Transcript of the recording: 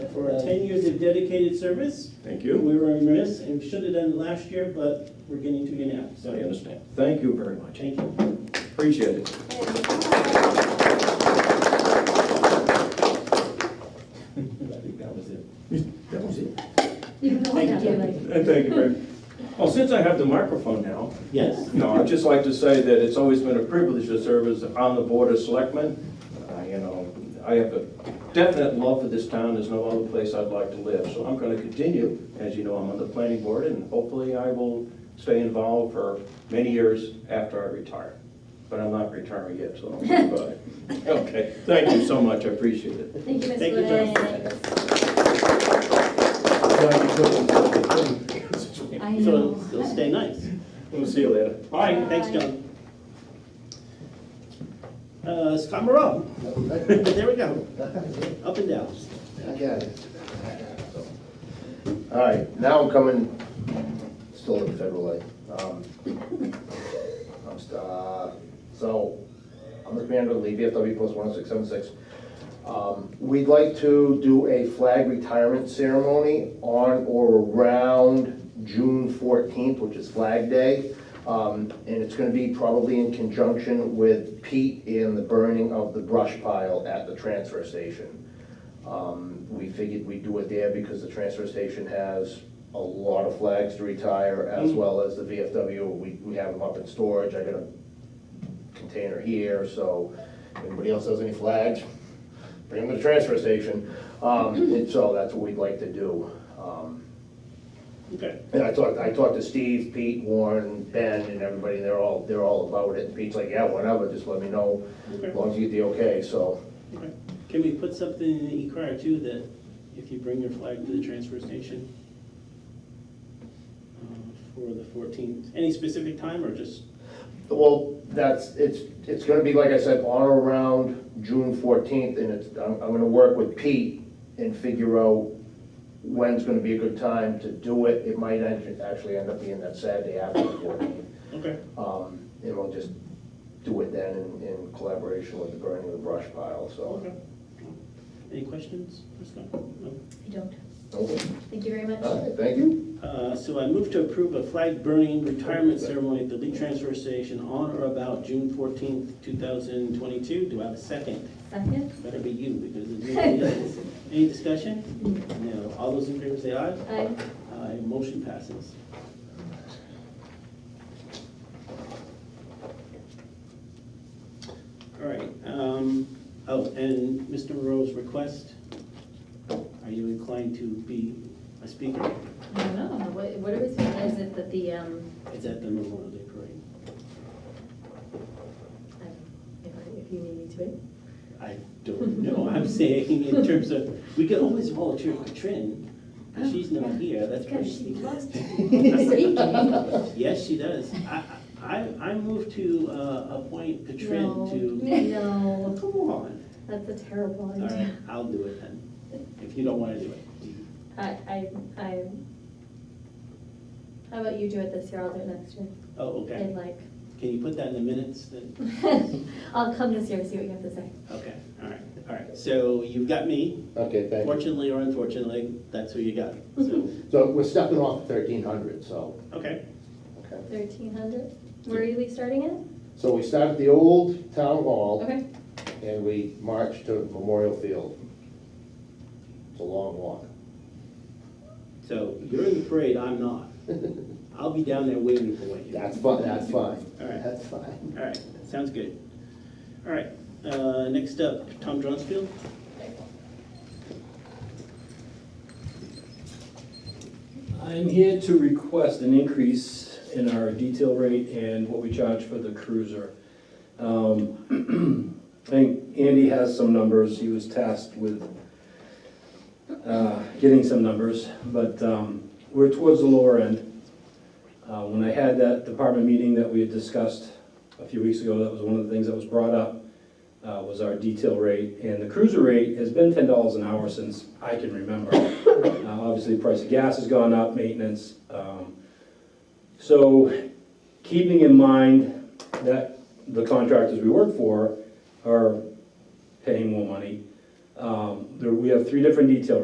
for ten years of dedicated service. Thank We you. were remiss and should have done it last year, but we're getting to you now, I so understand. Thank you very much. thank you. Appreciate it. I think that was it. That was it. Even though I got it late. And Thank you, very Well, since I have the microphone now, Yes. no, I'd just like to say that it's always been a privilege to serve as on the Board of Selectmen. Uh, You know, I have a definite love for this town, there's no other place I'd like to live, so I'm going to continue. As you know, I'm on the planning board, and hopefully I will stay involved for many years after I retire. But I'm not retiring yet, so I'm gonna buy it. Okay, thank you so much, I appreciate it. Thank you, Ms. Thank you, Lewis. I So know. it'll stay nice. We'll see you later. All right, thanks, John. Uh, Scott Moreau, there we go, up and down. All right, now I'm coming, still in federal aid. Um, I'm, st- uh, so, I'm the commander of the VFW Post 10676. Um, We'd like to do a flag retirement ceremony on or around June 14th, which is Flag Day. Um, And it's gonna be probably in conjunction with Pete and the burning of the brush pile at the transfer station. Um, We figured we'd do it there because the transfer station has a lot of flags to retire, as well as the VFW. We, we have them up in storage, I got a container here, so if anybody else has any flags, bring them to the transfer station. Um, And so that's what we'd like to do. Um, Okay. And I talked, I talked to Steve, Pete, Warren, Ben, and everybody, they're all, they're all about it. Pete's like, yeah, whatever, just let me know, as long as you get the okay, so. Okay. Can we put something in the e-car too, that if you bring your flag to the transfer station uh, for the fourteenth, any specific time or just, Well, that's, it's, it's gonna be, like I said, on or around June fourteenth, and it's, I'm, I'm gonna work with Pete and figure out when's gonna be a good time to do it. It might act- actually end up being that Saturday after the fourteenth. okay, Um, and we'll just do it then in, in collaboration with the burning of the brush pile, so. okay. Any questions for Scott? No? I don't. Okay. Thank you very much. All right, thank you. Uh, So I move to approve a flag burning retirement ceremony at the Lee Transfer Station on or about June fourteenth, two thousand twenty-two. Do I have a second? Second? Better be you, because it's nobody else. Any discussion? No. All those in favor say aye. Aye. Aye, Uh, motion passes. All right, um, oh, and Mr. Moreau's request, are you inclined to be a speaker? I don't know. What, what are we saying? Is it that the, um, It's at the Memorial Day Parade. I- if I- if you need me to wait? I don't know, I'm saying in terms of, we can always volunteer Katrin, but she's not here, that's pretty Oh, Because she sneaky. loves speaking. No. Yes, she does. I, I, I move to uh, appoint Katrin to, No, well, come on. that's a terrible All right, idea. I'll do it then, if you don't want to do it. I, I, I, how about you do it this year? I'll do it next year. Oh, okay. And like, Can you put that in the minutes then? I'll come this year and see what you have to say. Okay, all right, all right. So you've got me, Okay, thank you. fortunately or unfortunately, that's who you got. So, So we're stepping off thirteen hundred, so. okay, Okay. Thirteen hundred? Where are we starting it? So we start at the old town hall Okay, and we march to Memorial Field. It's a long walk. so you're in the parade, I'm not. I'll be down there waiting for you. That's fine, that's fine. All right. That's fine. All right, sounds good. All right, uh, next up, Tom Dronsfield. I'm here to request an increase in our detail rate and what we charge for the cruiser. Um, I think Andy has some numbers, he was tasked with uh, getting some numbers, but um, we're towards the lower end. Uh, When I had that department meeting that we had discussed a few weeks ago, that was one of the things that was brought up, uh, was our detail rate. And the cruiser rate has been ten dollars an hour since I can remember. Uh, Obviously, the price of gas has gone up, maintenance. um, So keeping in mind that the contractors we work for are paying more money, um, there- we have three different detail